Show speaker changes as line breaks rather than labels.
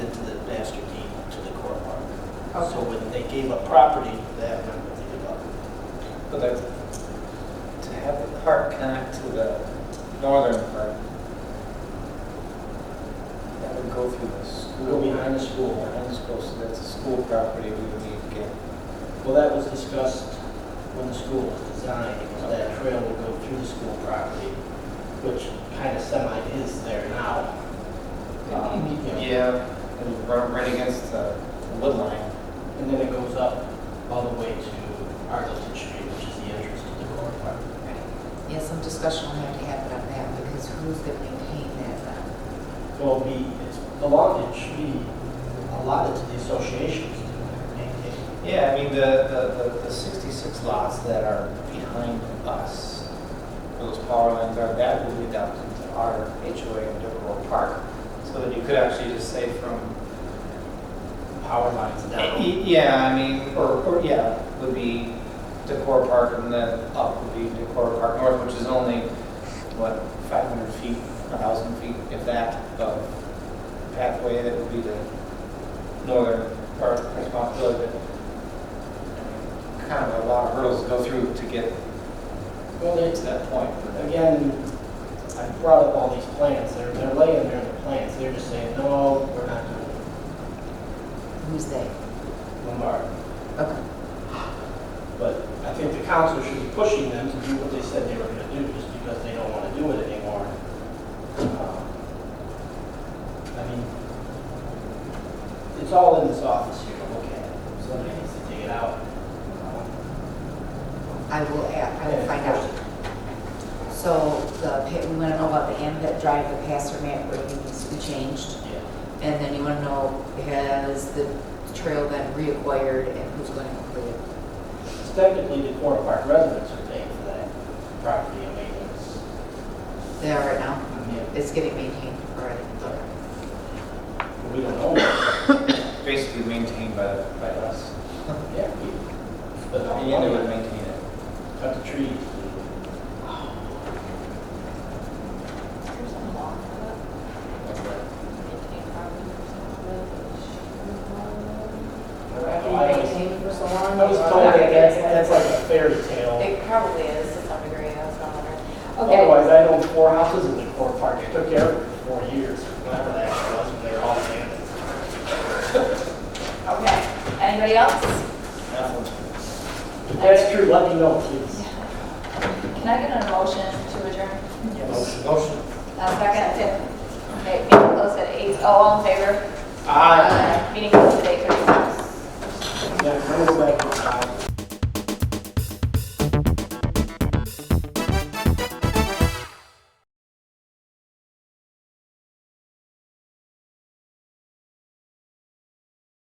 So when they gave up property for that, I don't think about it.
But that, to have the park connect to the northern part, that would go through the
Go
school.
behind the school.
Behind the school, so that's a school property we would need to get.
Well, that was discussed when the school was designed, because that trail would go through the school property, which kind of semi is there now.
Mm-hmm.
Um, you know,
Yeah, it would run right against the wood line.
And then it goes up all the way to Arlington Street, which is the entrance to the core park.
Yes, some discussion will have to happen on that because who's going to maintain that um, then?
Well, be, it's belonged, it should be allotted to the associations to maintain.
Yeah, I mean, the, the, the- the 66 lots that are behind us, where those power lines are, that would be dumped into our HOA in Riverwood Park. So that you could actually just say from
Power lines down.
Y- Yeah, I mean, or, or, yeah, would be Decor Park and then up would be Decor Park North, which is only, what, 500 feet, 1,000 feet, if that, of pathway that would be the northern part of responsibility. but Kind of a lot of hurdles to go through to get
Well, they,
to that point.
again, I brought up all these plans, they're, they're laying there in the plans, they're just saying, no, we're not doing
Who's they?
it, Lombard.
Okay.
But I think the council should be pushing them to do what they said they were gonna do, just because they don't wanna do it anymore. Um, I mean, it's all in this office here, look at it, somebody needs to dig it out. Um,
I will add, I will find out. So the, pa- we want to know about the Ambet Drive, the passer map, where it needs to be changed.
Yeah.
And then you want to know, has the trail been reacquired and who's going to complete it?
It's Technically, the Corner Park residents are paying for that property, I mean, it's,
They are right now.
yeah,
It's getting maintained already.
we don't own it,
Basically maintained by, by us.
yeah, we. but
And
the
they
money-
would maintain it.
cut the trees.
There's a law for that. It's like maintain property or something.
I was-
for so long.
I was told that that's, that's like a fairy tale.
It probably is to some degree, that's what I'm wondering.
Otherwise, I own four houses in the core park. I took care of it for four years, whatever that was, when they were all abandoned.
Okay, anybody else?
If that's true, let me know, please.
Can I get a motion to adjourn?
Motion.
Uh, second? Okay, meeting closed at eight. Oh, all in favor?
Aye.
Meeting closed at